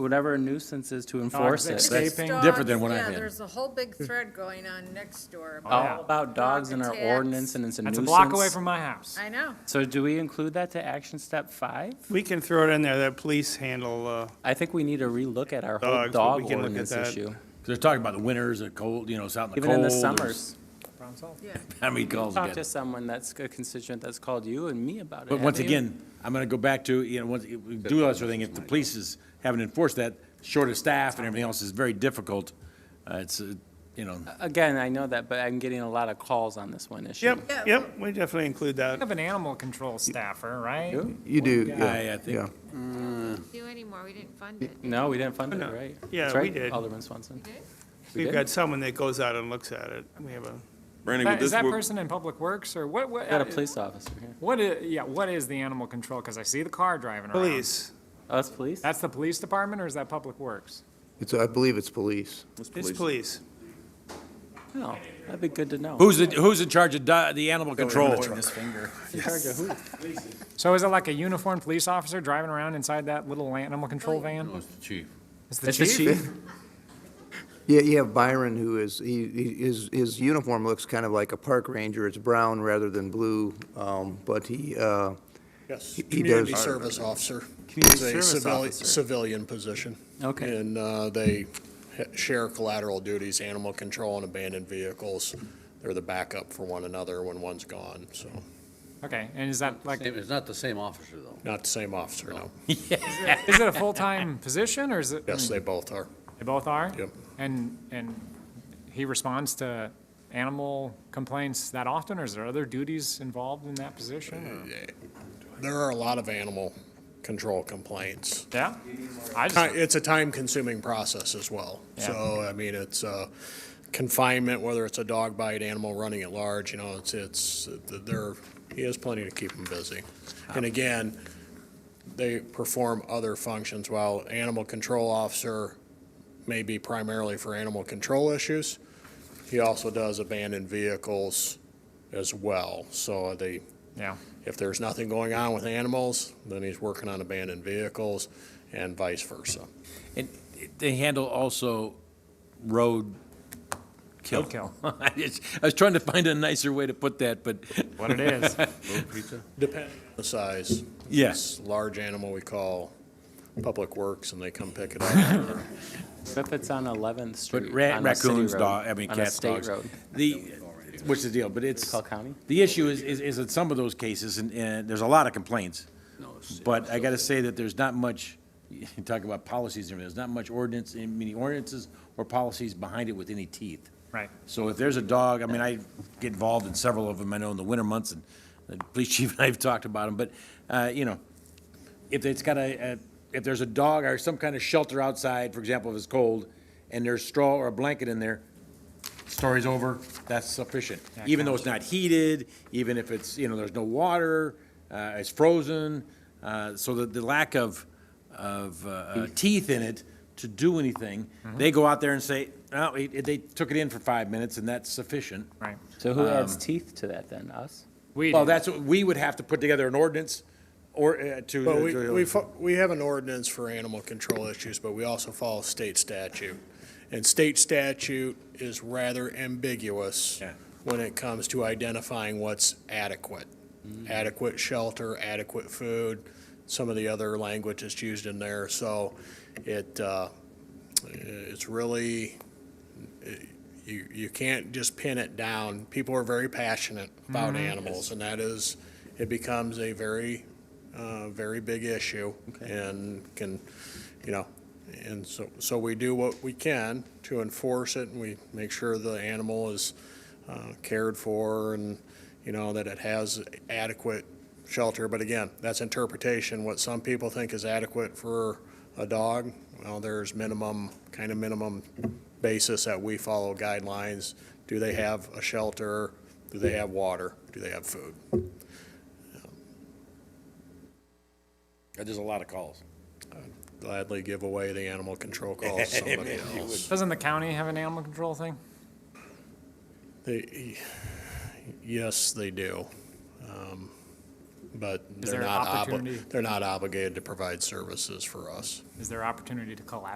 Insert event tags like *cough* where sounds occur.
whatever a nuisance is to enforce it. Dogs That's escaping. Dogs, Different than what I yeah, had. There's a whole big thread going on next door. about- Oh, yeah. all about dogs in our Attacks. ordinance and it's a That's nuisance. a block away from my house. I know. So do we include that to action step five? We can throw it in there, that police handle, uh, I think we need to relook at our whole Dogs, but we dog can look at ordinance that. issue. They're talking about the winters, the cold, you know, it's out in the Even cold. in the there's- summers. Problem solved. Yeah. *laughs* How many calls we Talk to get? someone that's a constituent that's called you and me about it. But once haven't you? again, I'm gonna go back to, you know, once, if we do that sort of thing, if the police is, haven't enforced that, short of staff and everything else is very difficult. Uh, it's, uh, you know, Again, I know that, but I'm getting a lot of calls on this one issue. Yeah. yep, yep, we definitely include You that. have an animal control staffer, right? Yeah. You do, guy, I yeah, think. yeah. Do anymore, we didn't fund it. No, we didn't fund it, No. right? Yeah, That's we right, did. Alderman Swanson. We We've did? got someone that goes out and looks at it. We have a, Brandy, would That- Is this, that work- person in Public Works or what, what? uh, Got a police officer here. What is, yeah, what is the animal control? Because I see the car driving around. police, Oh, that's police? That's the police department or is that Public Works? It's, I believe it's police. it's police. No, that'd be good to know. who's, in- who's in charge of di- the animal control? In charge of who? So is it like a uniformed police officer driving around inside that little animal control van? It's the chief. It's the It's the chief? chief. Yeah, you have Byron who is, he, he- his, his uniform looks kind of like a park ranger. It's brown rather than blue, um, but he, uh, He- Yes, he does- community service officer. It's a service civili- officer. Civilian position. Okay. And uh, they ha- share collateral duties, animal control and abandoned vehicles. They're the backup for one another when one's gone, so. Okay, and is that like, It's not the same officer, though. Not the same officer, no. is it a full-time position or is it? Yes, they both are. They both are? Yep. And, and he responds to animal complaints that often, or is there other duties involved in that position? Uh, or- There are a lot of animal control complaints. Yeah? I Ti- just, It's a time-consuming process as well. Yeah. So, I mean, it's uh, confinement, whether it's a dog bite, animal running at large, you know, it's, it's, there, he has plenty to keep him busy. And again, they perform other functions, while animal control officer may be primarily for animal control issues, he also does abandoned vehicles as well. So they, yeah, if there's nothing going on with animals, then he's working on abandoned vehicles and vice versa. And they handle also road kill. Roadkill. *laughs* I just- I was trying to find a nicer way to put that, but what it is. Depending on the size. Yes. This Large animal we call Public Works, and they come pick it up. What If it's on 11th But Street. ra- on a city raccoons, road, dog, I mean, On a cats, state dogs. road. The, what's the deal, but it's. Call county? The issue is, is, is in some of those cases, and, and there's a lot of complaints. But I gotta say that there's not much, *laughs* you talk about policies, and everything, there's not much ordinance, many ordinances or policies behind it with any teeth. Right. So if there's a dog, I mean, I get involved in several of them, I know in the winter months, and the *laughs* police chief and I have talked about them, but, uh, you know, if it's got a, a- if there's a dog or some kind of shelter outside, for example, if it's cold, and there's straw or a blanket in there, story's over, that's sufficient. Even though it's not heated, even if it's, you know, there's no water, uh, it's frozen, uh, so the, the lack of, of, uh, uh, teeth in it to do anything, they go out there and say, oh, it- they took it in for five minutes and that's sufficient. Right. So who adds teeth to that then? Us? We Well, do. that's, what we would have to put together an ordinance or, uh, to. But we, to- we, fo- we have an ordinance for animal control issues, but we also follow state statute. And state statute is rather ambiguous Yeah. when it comes to identifying what's adequate. Adequate shelter, adequate food, some of the other language that's used in there, so it, uh, it's really, you, you can't just pin it down. People are very passionate about animals, and that is, it becomes a very, uh, very big issue. And can, you know, and so, so we do what we can to enforce it, and we make sure the animal is uh, cared for and, you know, that it has adequate shelter. But again, that's interpretation. What some people think is adequate for a dog, well, there's minimum, kind of minimum basis that we follow guidelines. Do they have a shelter? Do they have water? Do they have food? There's a lot of calls. Gladly give away the animal control call to somebody else. Doesn't the county have an animal control thing? They, yes, they do. Um, but they're there an not, obli- opportunity? they're not obligated to provide services for us. Is there opportunity to collaborate